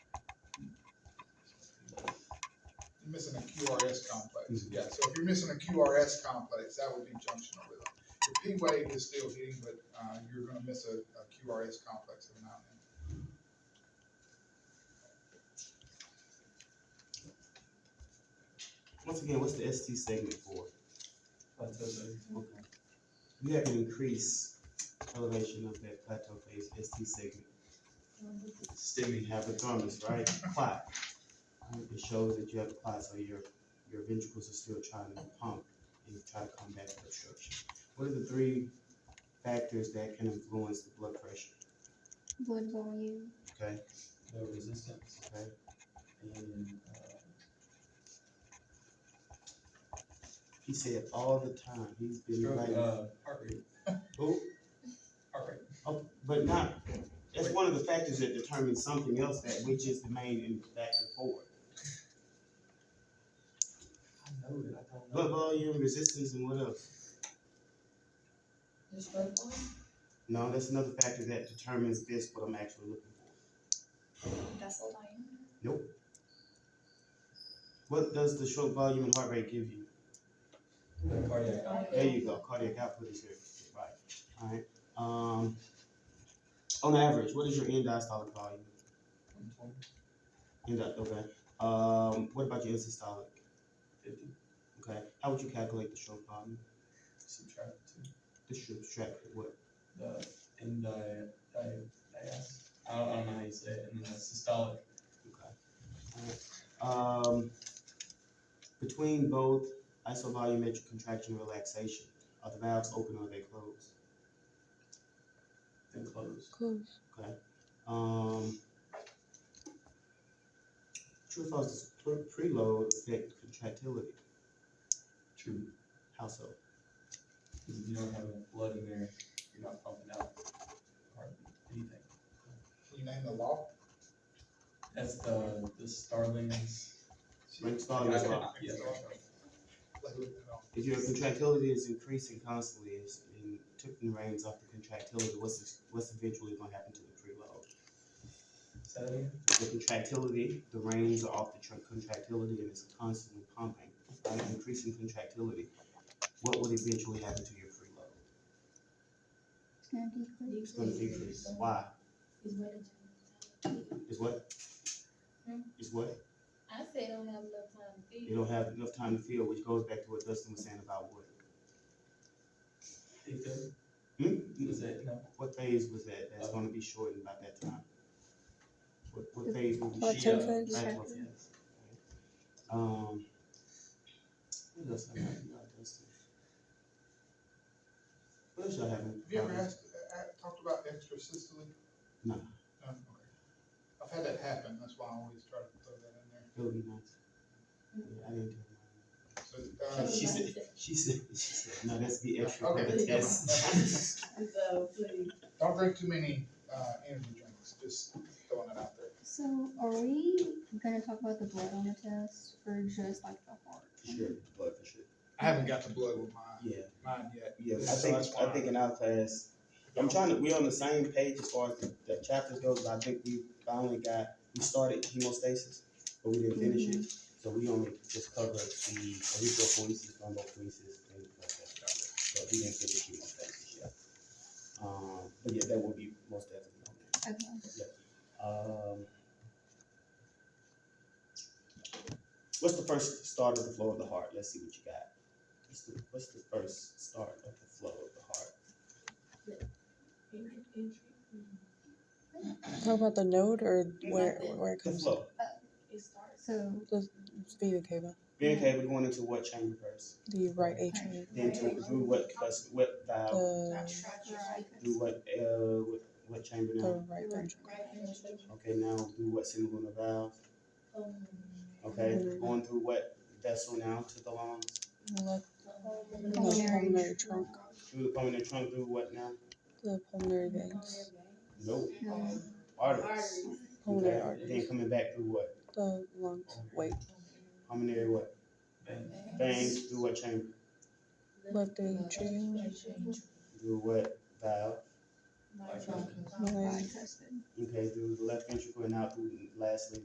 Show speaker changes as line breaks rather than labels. missing a QRS complex, yeah, so if you're missing a QRS complex, that would be junctional rhythm. The P wave is still hitting, but, uh, you're gonna miss a, a QRS complex every now and
Once again, what's the ST segment for?
plateau phase.
Okay. You have to increase elevation of that plateau phase ST segment. STEMI hypothalamus, right? Clot. It shows that you have a clot, so your, your ventricles are still trying to pump and try to combat the obstruction. What are the three factors that can influence the blood pressure?
blood volume,
Okay,
No resistance
okay,
and, uh,
he said all the time, he's been
stroke,
like,
uh, heart rate,
oh,
heart rate.
Oh, but not, that's one of the factors that determines something else that which is the main in- factor for it.
I know that, I don't know.
Blood volume, resistance, and what else?
Just blood volume?
No, that's another factor that determines this, what I'm actually looking for.
vessel volume,
What does the stroke volume and heart rate give you?
The Cardiac.
There you go, cardiac output is here, right, alright, um, on average, what is your end-diastolic volume?
output,
End, okay, um, what about your systolic?
Fifty,
Okay, how would you calculate the stroke volume?
subtract two,
The stroke, track, what,
the, and di, di, dias. I don't, I don't know how you say it, and then the systolic,
Okay. Alright. Um, between both isovolumetric contraction and relaxation, are the valves open or are they closed?
then close.
Close.
Um, true or false, does pre- preload affect contractility?
True,
How so?
because if you don't have enough blood in there, you're not pumping out hardly anything.
then. Can you name the law?
That's the, the Starlings.
Rink's law is law.
Yeah.
Like, look it up.
If your contractility is increasing constantly and, and took the reins off the contractility, what's, what's eventually gonna happen to the preload?
Is that it?
the contractility, the reins are off the tr- contractility and it's constantly pumping, right? increasing contractility. What would eventually happen to your preload?
it's gonna decrease.
It's gonna decrease. Why?
Is what it is.
Is what?
Hmm.
Is what?
I say don't have enough time to
You
feed.
don't have enough time to feel, which goes back to what Dustin was saying about what?
Think that-
Hmm?
Is that, no?
What phase was that? That's gonna be shortened by that time. What, what phase would be?
Plateau
uh,
phase.
Plateau phase. Um. What else I got, about Dustin? What else y'all having?
Have you ever asked, uh, talked about extrasystoly?
No.
No, okay. I've had that happen, that's why I always try to throw that in there.
It'll be nice. Yeah, I didn't do
So, uh,
it. She said, she said, she said, no, that's the extra.
Okay, never mind.
Yes.
So please.
don't drink too many, uh, energy drinks, just throwing it out there.
So are we gonna talk about the blood on the test or just like the heart?
Sure, but for sure.
I haven't got the blood with mine,
Yeah,
mine yet.
yeah, I
So
think,
that's
I
fine.
think in our class, I'm trying to, we're on the same page as far as the, the chapters goes, but I think we finally got, we started hemostasis, but we didn't finish it. So we only just covered the erythropoiesis, thrombopoiesis, things like that. But we didn't finish hemostasis yet. Um, but yeah, that will be most definitely on there.
Okay,
Um, what's the first start of the flow of the heart? Let's see what you got. What's the, what's the first start of the flow of the heart?
Talk about the node or
Yeah,
where
that's it.
where it
The
comes.
flow.
It starts.
so
Vena cava,
Being okay, we're going into what chamber first?
the right atrium,
Then to, through what cus- what valve?
the
Through what uh what, what chamber now?
the right ventricle.
Okay, now through what single valve? Okay,
Mm-hmm.
going through what vessel now to the lungs?
Left
Pulmonary
pulmonary trunk,
Through the pulmonary trunk, through what now?
the pulmonary veins,
No
no,
arteries.
pulmonary
Okay,
arteries,
Then coming back through what?
the lungs. Wait,
Pulmonary what?
Vein.
Veins through what chamber?
left atrium,
Through what valve?
My
tricuspid.
Okay, through the left ventricle and out through, lastly,